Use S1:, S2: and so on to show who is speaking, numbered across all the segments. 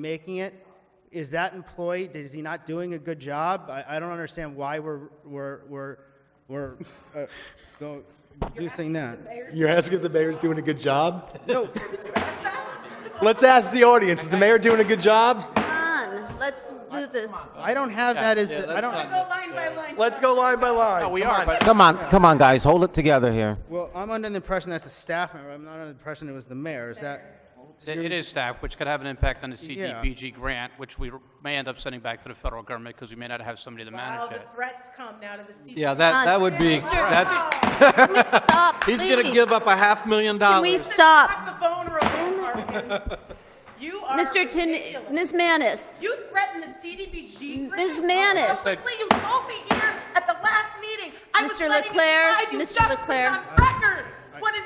S1: making it. Is that employee, is he not doing a good job? I, I don't understand why we're, we're, we're, we're, uh, go, reducing that.
S2: You're asking if the mayor's doing a good job?
S1: No,
S2: Let's ask the audience, is the mayor doing a good job?
S3: Come on, let's do this.
S1: I don't have that as, the- I don't,
S2: Let's go line by line.
S4: We are, but
S5: Come on, come on, guys, hold it together here.
S1: well, I'm under the impression that's the staff member. I'm not under the impression it was the mayor. Is that,
S4: it is staff, which could have an impact on the
S1: Yeah.
S4: CDBG grant, which we may end up sending back to the federal government because we may not have somebody to
S6: Wow,
S4: manage
S6: the
S4: it.
S6: threats come now to the seat.
S7: Yeah, that, that would be,
S3: Mr.
S7: that's,
S3: Can we stop,
S7: he's gonna
S3: please?
S7: give up a half million
S3: Can we
S7: dollars.
S3: stop?
S6: Lock the phone room, Harkins. You are
S3: Mr. Tim,
S6: ridiculous.
S3: Ms. Manis,
S6: You threatened the CDBG. grant.
S3: Ms. Manis.
S6: Mostly you told me here at the last meeting. I was
S3: Mr.
S6: letting it
S3: Leclerc,
S6: slide. You
S3: Mr.
S6: just
S3: Leclerc.
S6: put it on record. What an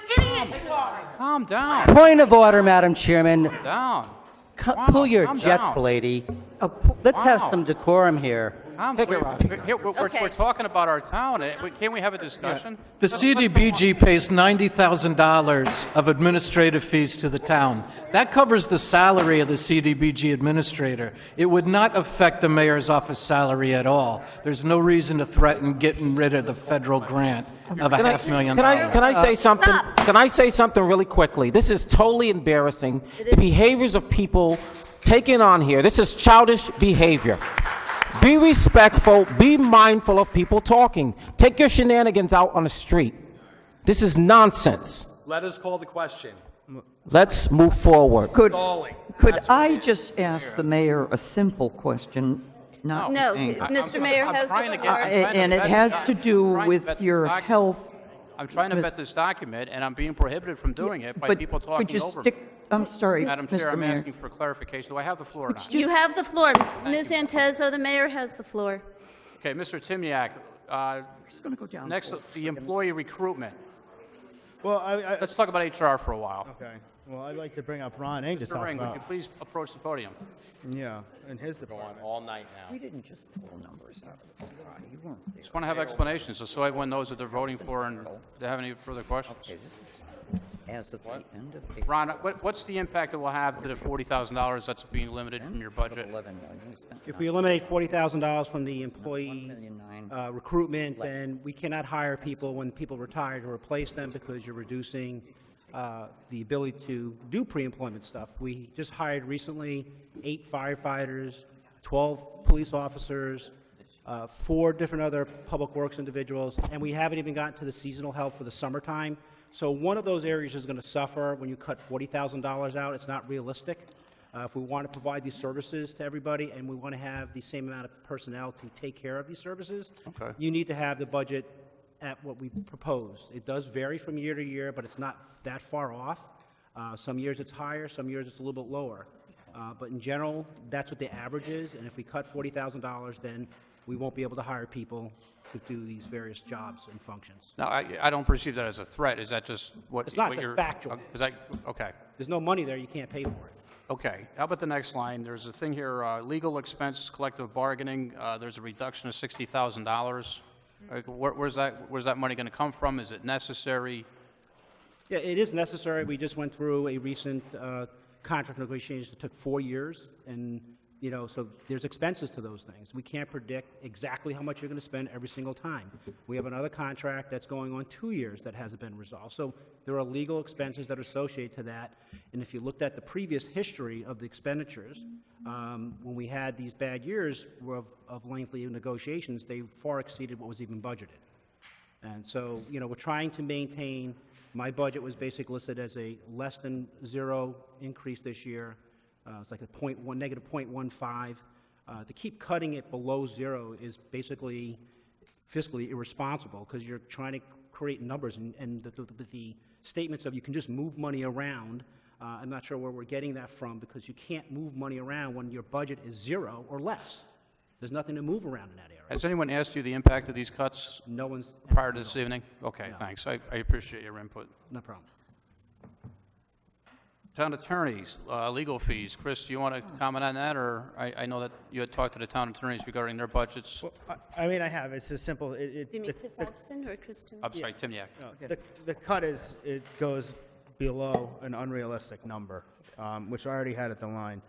S6: idiot you are.
S4: Calm down,
S8: Point of order, Madam Chairman.
S4: down.
S8: Co-
S4: Wow,
S8: Pull your
S4: calm
S8: jets,
S4: down. Oh,
S8: lady. Uh, pu- Let's have
S4: Wow.
S8: some decorum here.
S4: Calm-
S5: Take it,
S4: we're-
S5: Rocky.
S4: we're- here, we're, we're-
S3: Okay.
S4: we're talking about our town. eh, we- Can't we have a discussion?
S7: The CDBG pays ninety thousand dollars of administrative fees to the town. That covers the salary of the CDBG administrator. It would not affect the mayor's office salary at all. There's no reason to threaten getting rid of the federal grant of a
S5: Can I-
S7: half million
S5: can I-
S7: dollars. Uh,
S5: Can I say something?
S3: Stop.
S5: Can I say something really quickly? This is totally embarrassing. The behaviors of people taken on here, this is childish behavior. Be respectful, be mindful of people talking. Take your shenanigans out on the street. This is nonsense.
S2: Let us call the question.
S5: Let's move forward.
S9: Could,
S2: Stalling.
S9: could I just ask the mayor a simple question? Not
S3: no,
S9: angry.
S4: I- I'm-
S3: Mr.
S4: I'm-
S3: Mayor
S4: I'm
S3: has
S4: trying
S3: the
S4: to get-
S3: floor.
S4: I'm
S9: Uh,
S4: trying to
S9: and it
S4: vet
S9: has
S4: this
S9: to
S4: doc-
S9: do
S4: I'm trying to
S9: with
S4: vet this
S9: your
S4: document.
S9: health.
S4: I'm trying to vet this document, and I'm being prohibited from doing it by
S9: But
S4: people
S9: could you
S4: talking over me.
S9: stick- I'm sorry,
S4: Madam Chair,
S9: Mr.
S4: I'm
S9: Mayor.
S4: asking for clarification. Do I have the floor or not?
S3: You have the floor. Ms. Antezo, the mayor has the floor.
S4: Okay, Mr. Timniak, uh,
S9: gonna go down
S4: next,
S9: for a
S4: the employee recruitment.
S1: well, I, I,
S4: Let's talk about HR for a while.
S1: okay. Well, I'd like to bring up Ron Eng to
S4: Mr.
S1: talk
S4: Oh, Ring, would you
S1: about,
S4: please approach the podium?
S1: yeah, in his department.
S2: All night now.
S9: We didn't just pull numbers out of the sky. You weren't there.
S4: Just want to have explanations, just so everyone knows what they're voting for and if they have any further questions.
S9: Okay, this is as of the end of April.
S4: Ron, what, what's the impact it will have to the forty thousand dollars that's being limited from your budget?
S9: 11 million, you spent
S10: If we eliminate forty thousand dollars from the employee
S9: million nine.
S10: uh, recruitment, then we cannot hire people when people retire to replace them because you're reducing uh, the ability to do pre-employment stuff. We just hired recently eight firefighters, twelve police officers, uh, four different other public works individuals, and we haven't even gotten to the seasonal help for the summertime. So one of those areas is going to suffer when you cut forty thousand dollars out. It's not realistic. Uh, If we want to provide these services to everybody and we want to have the same amount of personnel to take care of these services, you need to have the budget at what we proposed. It does vary from year to year, but it's not that far off. Uh, Some years it's higher, some years it's a little bit lower. Uh, But in general, that's what the average is, and if we cut $40,000, then we won't be able to hire people to do these various jobs and functions.
S4: No, I, I don't perceive that as a threat. Is that just what?
S10: It's not,
S4: what
S10: it's
S4: you're-
S10: factual.
S4: Is that, okay,
S10: There's no money there, you can't pay for it.
S4: okay. How about the next line? There's a thing here, uh, legal expenses, collective bargaining, uh, there's a reduction of sixty thousand dollars. Where, where's that, where's that money gonna come from? Is it necessary?
S10: Yeah, it is necessary. We just went through a recent uh, contract negotiation that took four years, and, you know, so there's expenses to those things. We can't predict exactly how much you're going to spend every single time. We have another contract that's going on two years that hasn't been resolved. So there are legal expenses that are associated to that, and if you looked at the previous history of the expenditures, um, when we had these bad years of of lengthy negotiations, they far exceeded what was even budgeted. And so, you know, we're trying to maintain, my budget was basically listed as a less than zero increase this year. Uh, It's like a point one, negative point one five. Uh, To keep cutting it below zero is basically fiscally irresponsible because you're trying to create numbers and, and the, the- the statements of you can just move money around. Uh, I'm not sure where we're getting that from because you can't move money around when your budget is zero or less. There's nothing to move around in that area.
S4: Has anyone asked you the impact of these cuts
S10: No one's,
S4: prior to this evening? Okay, thanks. I, I appreciate your input.
S10: no problem.
S4: Town attorneys, uh, legal fees. Chris, do you want to comment on that, or I, I know that you had talked to the town attorneys regarding their budgets.
S1: I, I mean, I have, it's as simple, it, it.
S3: Do you mean
S1: the-
S3: Chris
S1: the-
S3: Albertson or Chris Tim?
S4: I'm sorry, Timniak.
S1: The, the cut is, it goes below an unrealistic number, um, which I already had at the line.